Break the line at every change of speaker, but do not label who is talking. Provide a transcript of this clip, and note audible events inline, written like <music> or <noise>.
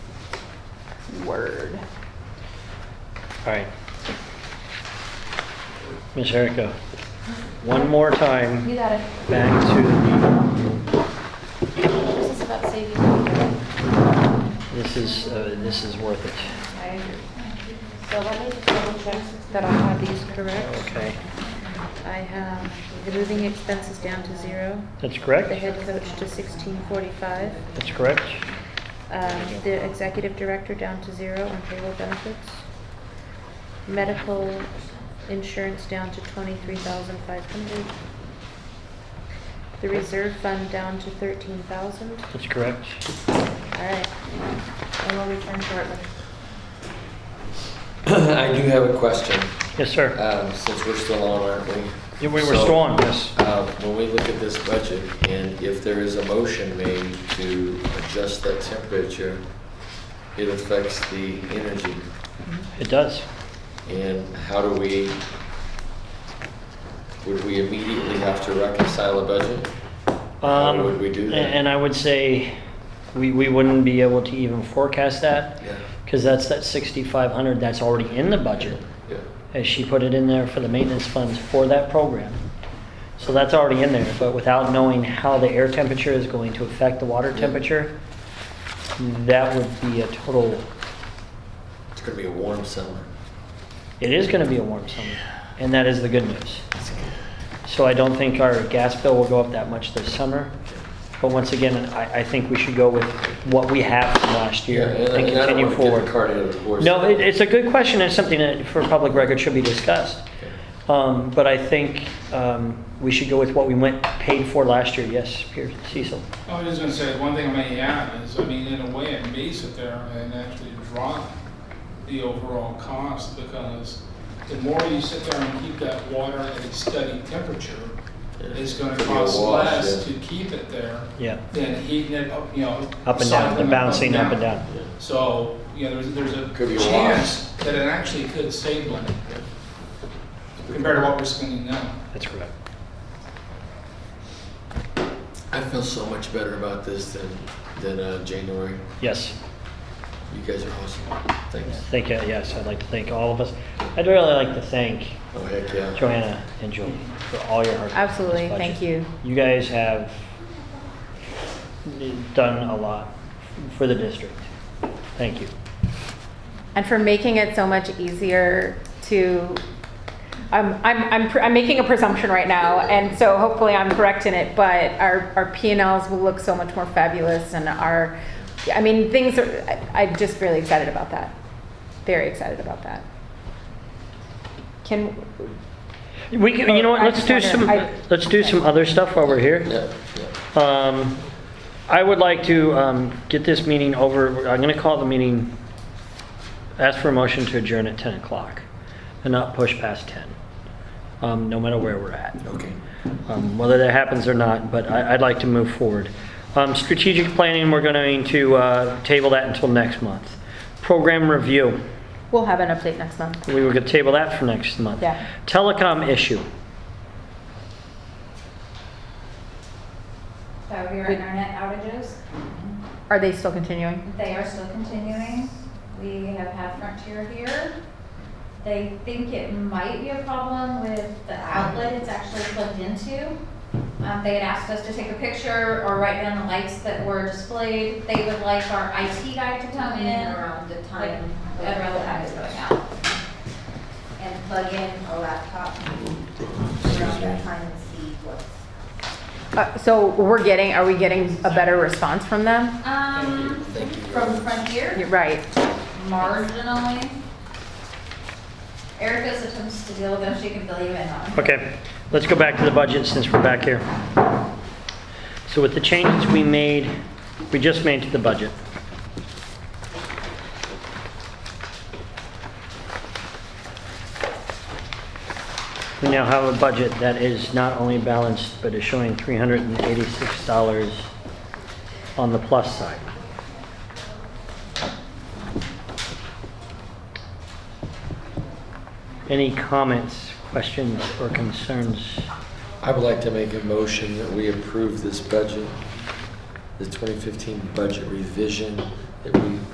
word.
All right. Ms. Erica, one more time,
You got it.
back to
This is about saving. I
the, this is, uh, this is worth it.
agree. So let me just double check that I have these correct.
Okay,
I have the moving expenses down to zero,
that's
the
correct?
head coach to sixteen forty-five,
That's correct?
um, the executive director down to zero on payroll benefits, medical insurance down to twenty-three thousand five hundred, the reserve fund down to thirteen thousand.
That's correct?
All right. I will return shortly.
<coughs> I do have a question,
Yes, sir.
um, since we're still on, aren't we?
Yeah, We were
So,
still on, yes.
uh, When we look at this budget, and if there is a motion made to adjust that temperature, it affects the energy.
It does.
And how do we, would we immediately have to reconcile a budget? How
Um,
would we do that?
And I would say, we, we wouldn't be able to even forecast that,
Yeah,
because that's that 6,500 that's already in the budget.
yeah,
as she put it in there for the maintenance funds for that program. So that's already in there, but without knowing how the air temperature is going to affect the water temperature, that would be a total,
it's gonna be a warm summer.
it is gonna be a warm summer, and that is the good news. So I don't think our gas bill will go up that much this summer, but once again, I, I think we should go with what we have from last year
Yeah,
and
I don't
continue
wanna get the
forward.
cart ahead of the horse.
No, it, it's a good question, and something that for public record should be discussed.
Okay.
Um, but I think, um, we should go with what we went, paid for last year, yes, Pierce, Cecil.
I was just gonna say, one thing I may add is, I mean, in a way, it may sit there and actually drop the overall cost, because the more you sit there and keep that water at a steady temperature, it's gonna
It'll be a
cost
wash,
less
yeah.
to keep it there
Yeah,
than heating it up, you know.
up and down, the
cycling it
bouncing up and down.
Yeah.
So, you know, there's, there's
Could be
a
a wash.
chance that it actually could save money compared to what we're spending now.
That's correct.
I feel so much better about this than, than uh, January.
Yes,
You guys are awesome. Thanks.
thank you, yes, I'd like to thank all of us. I'd really like to thank
Oh, heck yeah.
Joanna and Julie for all your hard work. on this
Absolutely, thank
budget.
you.
You guys have done a lot for the district. Thank you.
and for making it so much easier to I'm, I'm, I'm, pr- I'm making a presumption right now and so hopefully i'm correct in it but our, our p&l's will look so much more fabulous and our i mean things are I, i'm just really excited about that very excited about that can
We can, you know what,
I
let's
just
do
wonder-
some,
I-
let's do some other stuff while we're here.
Yeah, yeah.
Um, I would like to um, get this meeting over, I'm going to call the meeting, ask for a motion to adjourn at 10 o'clock and not push past 10, um, no matter where we're at.
Okay.
Um, Whether that happens or not, but I- I'd like to move forward. Um, Strategic planning, we're going to uh, table that until next month. Program review,
we'll have an update next month
we were going to table that for next month.
Yeah.
Telecom issue,
So your internet outages,
are they still continuing
they are still continuing. We have had Frontier here. They think it might be a problem with the outlet it's actually plugged into. Um, they had asked us to take a picture or write down the lights that were displayed. They would like our IT guy to come in.
around the
like,
time.
Around the time it's going out.
And plug in a laptop around that time and see what's.
uh, so we're getting are we getting a better response from them
Um, from Frontier.
You're right
marginally. Erica's attempts to deal with them, she can fill you in on.
Okay, let's go back to the budget since we're back here. So with the changes we made, we just made to the budget. We now have a budget that is not only balanced, but is showing $386 on the plus side. Any comments, questions, or concerns?
I would like to make a motion that we approve this budget, the 2015 budget revision that we